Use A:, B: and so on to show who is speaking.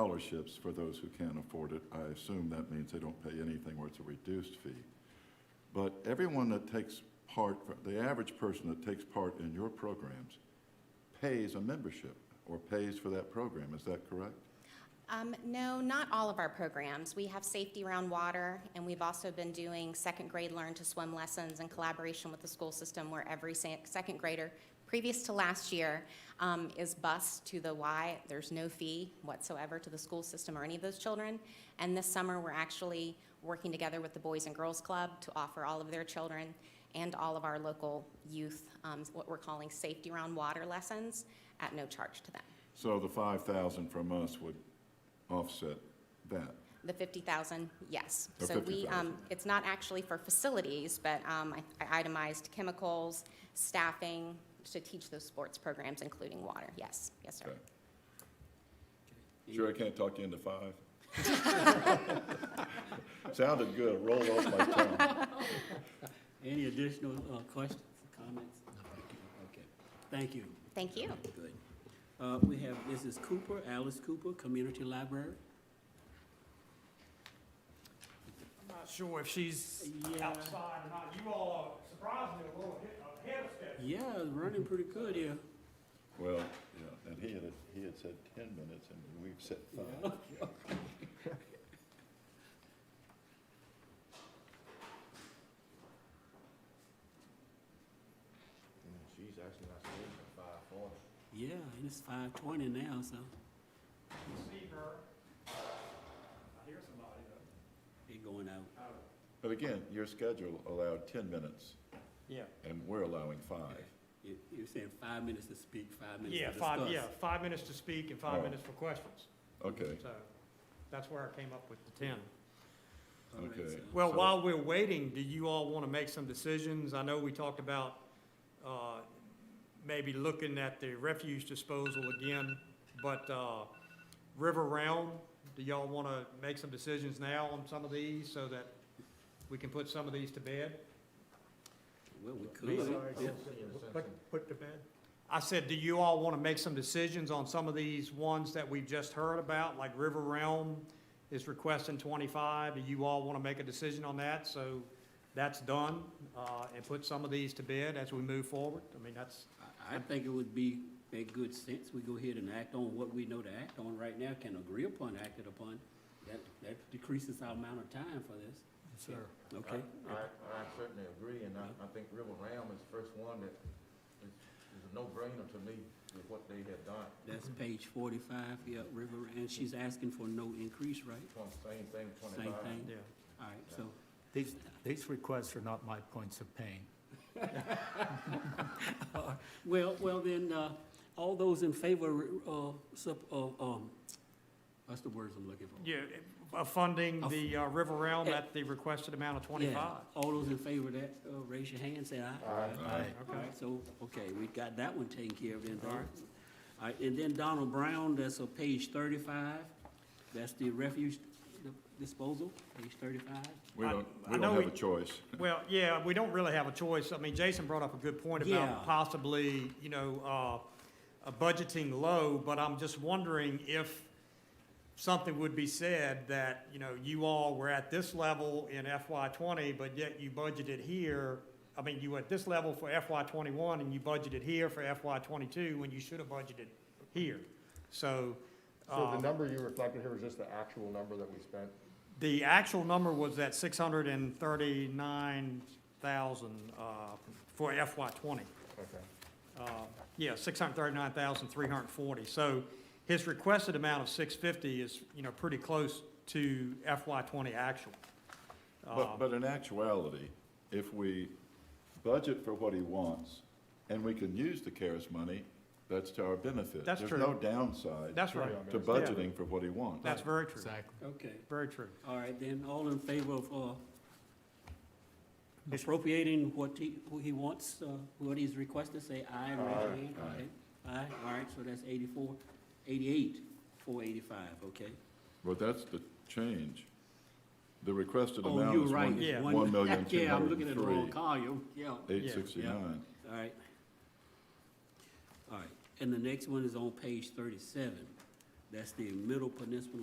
A: scholarships for those who can't afford it. I assume that means they don't pay anything or it's a reduced fee. But everyone that takes part, the average person that takes part in your programs pays a membership or pays for that program, is that correct?
B: Um, no, not all of our programs. We have safety around water, and we've also been doing second grade learn to swim lessons in collaboration with the school system where every sa- second grader, previous to last year, um, is bused to the Y. There's no fee whatsoever to the school system or any of those children. And this summer, we're actually working together with the Boys and Girls Club to offer all of their children and all of our local youth um, what we're calling safety around water lessons at no charge to them.
A: So the five thousand from us would offset that.
B: The 50,000, yes.
A: Oh,
B: So we,
A: 50,000.
B: um, it's not actually for facilities, but um, I I itemized chemicals, staffing to teach those sports programs, including water. Yes, yes, sir.
A: Okay. Sure I can't talk you into five? Sounded good, rolled off my tongue.
C: Any additional uh, questions, comments? Okay, thank you.
B: Thank you.
C: Good. Uh, We have Mrs. Cooper, Alice Cooper, Community Library.
D: I'm not sure if she's
C: Yeah.
D: outside or not. You all are surprisingly a little ahe- ahead of schedule.
C: Yeah, running pretty good here.
A: Well, yeah, and he had, he had said ten minutes and we've said five.
E: She's actually not sleeping at five four.
C: Yeah, and it's five twenty now, so
D: You see her. I hear somebody though.
C: it going out.
A: But again, your schedule allowed ten minutes
D: Yeah.
A: and we're allowing five.
C: You- You're saying five minutes to speak, five minutes to
D: Yeah,
C: discuss.
D: five, yeah, five minutes to speak and
A: Oh.
D: five minutes for questions.
A: Okay,
D: So that's where I came up with the ten.
C: All right,
A: Okay.
C: so-
D: Well,
A: So-
D: while we're waiting, do you all want to make some decisions? I know we talked about uh, maybe looking at the refuse disposal again, but uh, River Realm, do y'all want to make some decisions now on some of these so that we can put some of these to bed?
C: Well, we could. Yeah.
D: Put to bed? I said, do you all want to make some decisions on some of these ones that we've just heard about, like River Realm is requesting twenty-five? Do you all want to make a decision on that? So that's done, uh, and put some of these to bed as we move forward? I mean, that's,
C: I, I think it would be, make good sense, we go ahead and act on what we know to act on right now, can agree upon, acted upon. That, that decreases our amount of time for this. Sure. Okay,
E: I, I certainly agree, and I, I think River Ram is the first one that is, is a no-brainer to me with what they have done.
C: that's page forty-five, yeah, River, and she's asking for no increase, right?
E: Twen- Same thing,
C: Same
E: twenty-five.
C: thing,
D: yeah.
C: all right, so,
F: These, these requests are not my points of pain.
C: well, well then, uh, all those in favor, uh, sub, uh, um, what's the words I'm looking for?
D: Yeah, uh, funding the uh, River Realm
C: Yeah.
D: at the requested amount of
C: Yeah,
D: twenty-five.
C: All those in favor of that, uh, raise your hand, say aye.
A: Aye.
C: All
D: Okay.
C: right, so, okay, we got that one taken care of then.
D: All right.
C: All right, and then Donald Brown, that's on page thirty-five, that's the refuge disposal, page thirty-five.
A: we
D: I-
A: don't,
D: I
A: we
D: know
A: don't have
D: we-
A: a choice.
D: Well, yeah, we don't really have a choice. I mean, Jason brought up a good point
C: Yeah.
D: about possibly, you know, uh, uh, budgeting low, but I'm just wondering if something would be said that, you know, you all were at this level in FY twenty, but yet you budgeted here. I mean, you were at this level for FY twenty-one and you budgeted here for FY twenty-two when you should have budgeted here. So,
G: So the
D: um,
G: number you reflected here was just the actual number that we spent?
D: the actual number was at six hundred and thirty-nine thousand, uh, for FY twenty.
G: Okay.
D: Uh, yeah, six hundred and thirty-nine thousand, three hundred and forty. So his requested amount of six fifty is, you know, pretty close to FY twenty actual.
A: But, but in actuality, if we budget for what he wants and we can use the CARES money, that's to our benefit.
D: That's
A: There's no
D: true.
A: downside
D: Uh, That's right.
A: to budgeting for what he wants.
D: That's very true,
F: Exactly.
C: Okay,
D: very true.
C: all right, then all in favor of, uh, appropriating what he, who he wants, uh, what he's requested, say aye, raise your hand, okay? Aye, all right, so that's eighty-four, eighty-eight, four eighty-five, okay?
A: Well, that's the change. The requested
C: Oh,
A: amount
C: you're
A: is
C: right.
A: one,
C: it's
D: Yeah.
A: one million, two
C: Yeah, I'm
A: hundred
C: looking
A: and
C: at the wrong
A: three,
C: column, yeah.
A: eight sixty-nine.
C: All right. All right, and the next one is on page thirty-seven. That's the Middle Peninsula